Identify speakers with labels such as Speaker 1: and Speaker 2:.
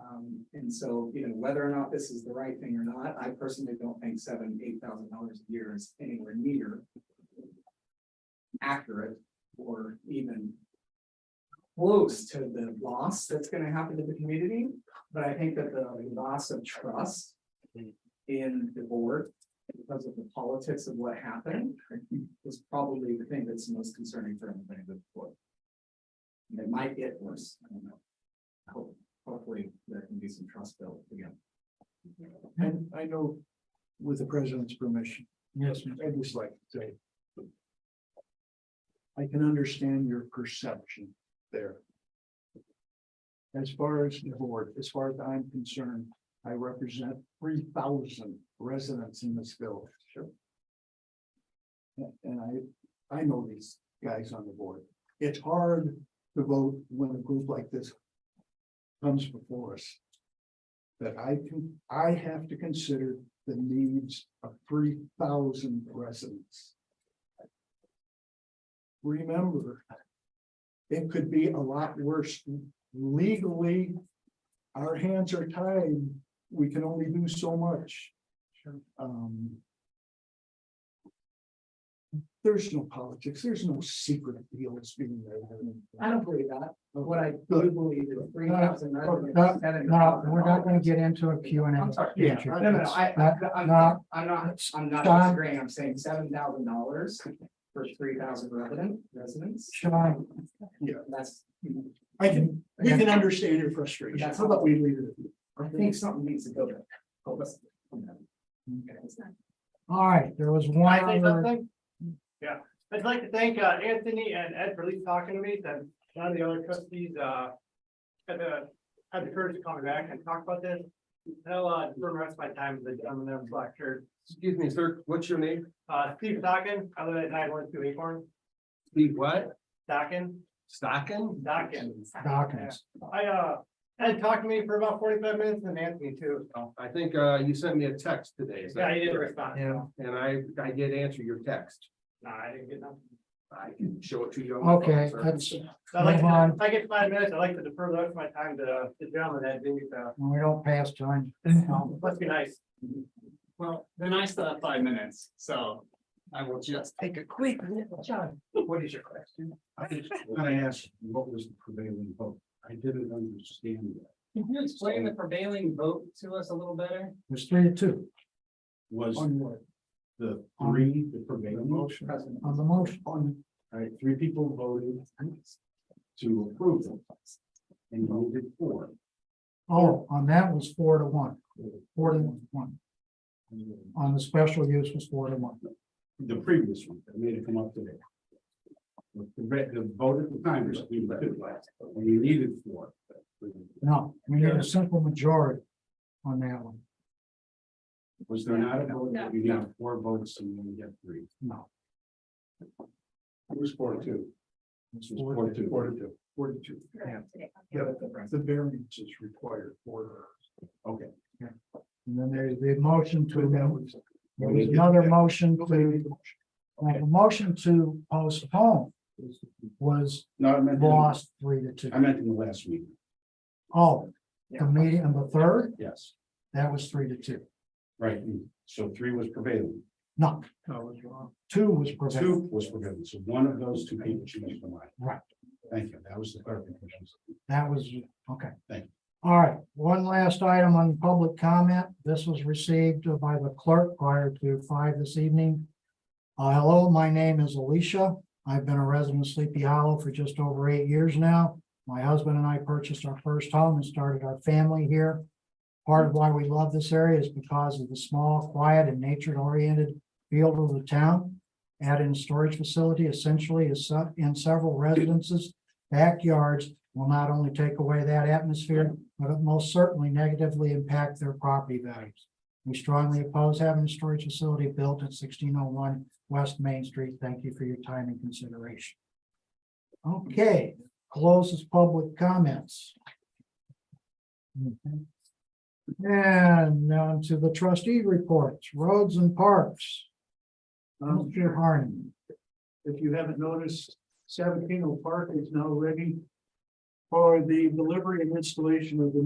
Speaker 1: Um, and so, you know, whether or not this is the right thing or not, I personally don't think seven, eight thousand dollars a year is anywhere near. Accurate or even. Close to the loss that's gonna happen to the community, but I think that the loss of trust. In the board, because of the politics of what happened, is probably the thing that's most concerning for everybody that's board. And It might get worse, I don't know. I hope hopefully there can be some trust built again.
Speaker 2: And I know with the president's permission. Yes. I'd just like to say. I can understand your perception there. As far as the board, as far as I'm concerned, I represent three thousand residents in this village. Sure. And I, I know these guys on the board. It's hard to vote when a group like this comes before us that I can, I have to consider the needs of three thousand residents. Remember, it could be a lot worse legally. Our hands are tied. We can only do so much. Um. There's no politics. There's no secret deals being made.
Speaker 1: I don't believe that, but what I do believe is three thousand.
Speaker 2: No,
Speaker 3: No, we're not gonna get into a Q and A.
Speaker 1: I'm sorry.
Speaker 2: Yeah,
Speaker 1: No, no, no, I, I, I'm not, I'm not, I'm not
Speaker 3: Don?
Speaker 1: disagreeing, I'm saying seven thousand dollars for three thousand resident, residents,
Speaker 3: Sean,
Speaker 1: that's.
Speaker 2: I can, we can understand your frustration. How about we leave it at that?
Speaker 1: I think something needs to go there. Oh, let's-
Speaker 3: all right, there was one
Speaker 4: Can I say
Speaker 3: other,
Speaker 4: something? Yeah, I'd like to thank uh, Anthony and Ed for at least talking to me, then none of the other trustees uh, had the, had the courage to call me back and talk about this. And I'll uh, defer the rest of my time with the gentleman in the black shirt,
Speaker 5: Excuse me, sir, what's your name?
Speaker 4: uh, Steve Dockin, I live at nine oh one two Acorn,
Speaker 5: Steve what?
Speaker 4: Dockin,
Speaker 5: Stocking?
Speaker 4: Dockin.
Speaker 3: Dawkins.
Speaker 4: I, uh, Ed talked to me for about forty-five minutes and Anthony too, so,
Speaker 5: I think uh you sent me a text today. is that
Speaker 4: yeah, he didn't
Speaker 5: correct?
Speaker 4: respond,
Speaker 3: Yeah,
Speaker 5: And I I did answer your text.
Speaker 4: no, I didn't get nothing.
Speaker 5: I can show it to you. on my phone,
Speaker 3: okay,
Speaker 5: sir.
Speaker 3: that's,
Speaker 4: So I'd like,
Speaker 3: Move on.
Speaker 4: to- if I get five minutes, I'd like to defer the rest of my time to uh, the gentleman that didn't, uh,
Speaker 3: we don't pass time. No.
Speaker 4: let's be nice.
Speaker 6: Well, then I still have five minutes, so I will just.
Speaker 3: Take a quick little shot.
Speaker 2: What is your question? I just, when I asked, what was the prevailing vote? I didn't understand that.
Speaker 6: Can you explain the prevailing vote to us a little better?
Speaker 3: There's three to two
Speaker 2: Was
Speaker 3: on your,
Speaker 2: the three the prevailing motion? All
Speaker 3: on the motion. On
Speaker 2: right, three people voted to approve them. And voted for.
Speaker 3: Oh, on that was four to one, four to one. On the special use was four to one.
Speaker 2: The previous one, I made it come up today. The, the vote at the time was three to two, and you needed four.
Speaker 3: No, we need a simple majority on that one.
Speaker 2: Was there not a vote, that you got four votes and you only got three?
Speaker 3: No.
Speaker 2: It was four to two. This was four to two. Four to two. Four to two. Yeah, the variance is required for. Okay.
Speaker 3: And then there's the motion to.
Speaker 2: was.
Speaker 3: There was another motion to, like, a motion to postpone was
Speaker 2: No, I meant, I
Speaker 3: lost three to two.
Speaker 2: meant in the last meeting,
Speaker 3: Oh, the meeting on the third,
Speaker 2: yes,
Speaker 3: that was three to two.
Speaker 2: right, so three was prevailing,
Speaker 3: No, two was prevailing.
Speaker 2: two was prevailing, so one of those two people changed their mind.
Speaker 3: Right.
Speaker 2: Thank you, that was the clarification.
Speaker 3: That was, okay.
Speaker 2: Thank
Speaker 3: All right, one last item on public comment. This was received by the clerk prior to five this evening. Uh, hello, my name is Alicia. I've been a resident of Sleepy Hollow for just over eight years now. My husband and I purchased our first home and started our family here. Part of why we love this area is because of the small, quiet, and nature-oriented feel of the town. Add-in storage facility essentially is se- in several residences, backyards, will not only take away that atmosphere, but it most certainly negatively impact their property values. We strongly oppose having a storage facility built at sixteen oh one West Main Street. Thank you for your time and consideration. Okay, closes public comments.
Speaker 7: Mm-hmm.
Speaker 3: And on to the trustee reports, roads and parks. Mr. Harney.
Speaker 7: Um, if you haven't noticed, Savantino Park is now ready for the delivery and installation of the new